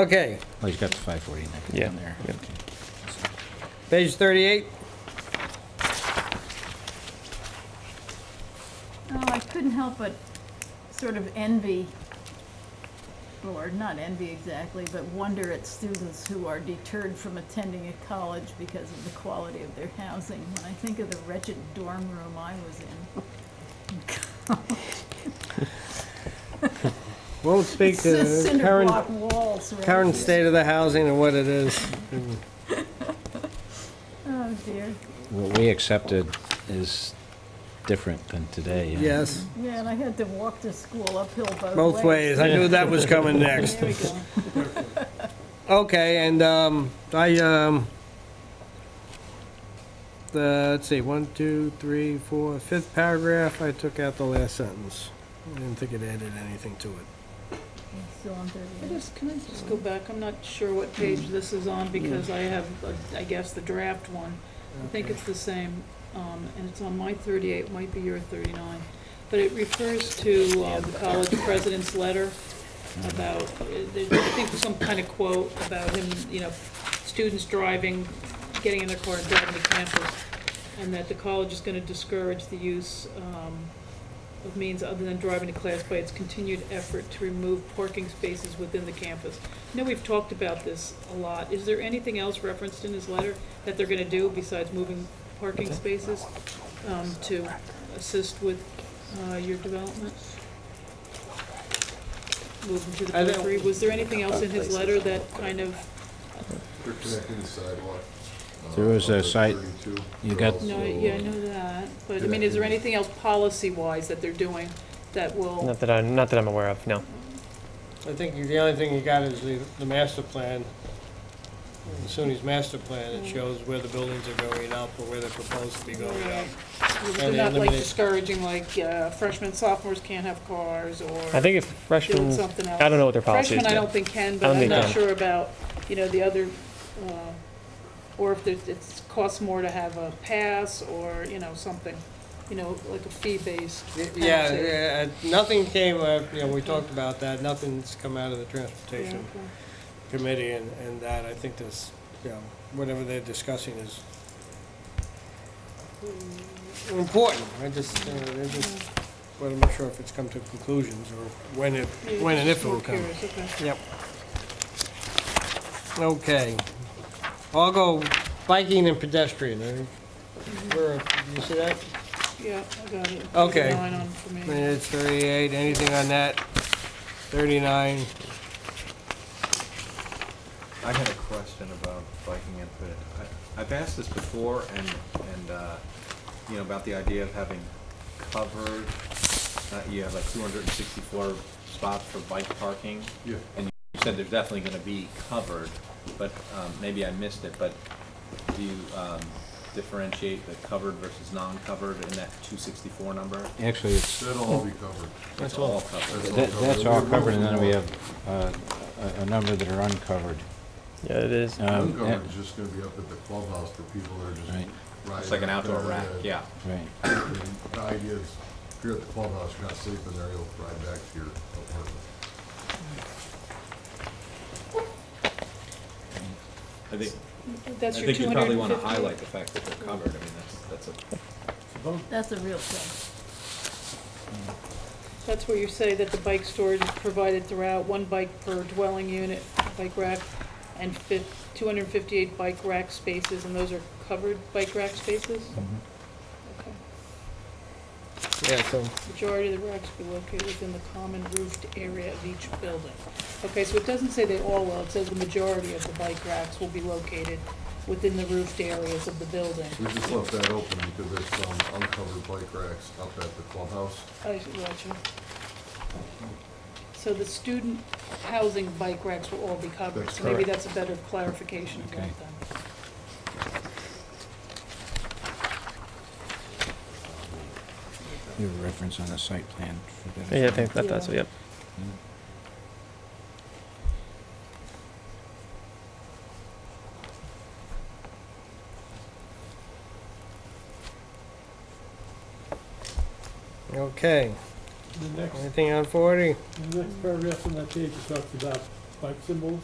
Okay, Oh, he's got the 549 Yeah, down there. yeah. Okay. page 38. Oh, I couldn't help but sort of envy, or not envy exactly, but wonder at students who are deterred from attending a college because of the quality of their housing. When I think of the wretched dorm room I was in. Won't speak It's to just the cinder current, block walls, right? current state of the housing and what it is. Oh, dear. What we accepted is different than today. and Yes, Yeah, and I had to walk to school uphill both both ways. ways. I knew that was coming next. There we go. Okay, and um, I, um, the, let's see, one, two, three, four, fifth paragraph, I took out the last sentence. I didn't think it added anything to it. Still on I 38. just, can I just go back? I'm not sure what page this is on because I have, uh, I guess, the draft one. I think it's the same, um, and it's on my thirty-eight, might be your thirty-nine. But it refers to, uh, the college president's letter about, uh, there's, I think, some kind of quote about him, you know, students driving, getting in their car and driving to campus, and that the college is gonna discourage the use, um, of means other than driving to class by its continued effort to remove parking spaces within the campus. I know we've talked about this a lot. Is there anything else referenced in his letter that they're gonna do besides moving parking spaces um, to assist with uh, your development? Moving to the I don't- periphery. Was there anything else in his letter that kind of, They're connecting the sidewalk. uh, There was a over site- 32. you They're got- also, no, yeah, I know that, but I mean, is there anything else policy-wise that they're doing that will, Not that I, not that I'm aware of, no. I think the only thing you got is the, the master plan. In SUNY's master plan, it shows where the buildings are going up or where they're proposed to be going up. they're they not like eliminate- discouraging, like uh, freshmen, sophomores can't have cars or? I think if doing freshmen, something else. I don't know what their policy is. Freshmen, I yet. don't think can, I but don't I'm think not can. sure about, you know, the other, uh, or if there's- it's, costs more to have a pass or, you know, something, you know, like a fee-based. Yeah, penalty. yeah, nothing came, uh, you know, we talked about that, nothing's come out of the Yeah, okay. transportation committee and, and that, I think this, you know, whatever they're discussing is important, I just, you know, they're just, well, I'm not sure if it's come to conclusions or when it, Yeah, when and just if it'll more come. curious, okay. Yep. Okay. I'll go biking and pedestrian, Mm-hmm. I- where, you see that? Yeah, I got it. Okay. There's a line on for me. Minutes thirty-eight, anything on that? Thirty-nine. I had a question about biking input. I, I've asked this before and, and, uh, you know, about the idea of having covered, uh, you have like two hundred and sixty-four spots for bike parking. Yeah. And you said they're definitely gonna be covered, but, um, maybe I missed it, but do you, um, differentiate the covered versus non-covered in that two sixty-four number? Actually, it's, That'll all be covered. That's all. covered. That's all that- covered. that's all We're covered, and moving then we on. have uh, a a number that are uncovered. Yeah, it is. Um, Uncovered is just gonna be up at the clubhouse for people that are just Right. riding. It's like an out outdoor there, rack, uh, yeah. Right. Mm-hmm. and The idea is, if you're at the clubhouse, you're not sleeping there, you'll ride back to your apartment. I think, I That's your think two you hundred probably and wanna fifty. highlight the fact that they're covered. I mean, that's, that's a That's a real thing. That's where you say that the bike storage is provided throughout, one bike per dwelling unit, bike rack, and fif, two hundred and fifty-eight bike rack spaces, and those are covered bike rack spaces? Okay. Yeah, so. Majority of the racks be located within the common roofed area of each building. Okay, so it doesn't say they all will, it says the majority of the bike racks will be located within the roofed areas of the building. We just left that open because there's some uncovered bike racks up at the clubhouse. I see, gotcha. So the student housing bike racks will all be covered, That's so maybe correct. that's a better clarification of that Okay. then. You have a reference on the site plan for that. Yeah, I think that, that's, Yeah. yep. Okay, The next, anything on forty? the next paragraph on that page is talking about bike symbols.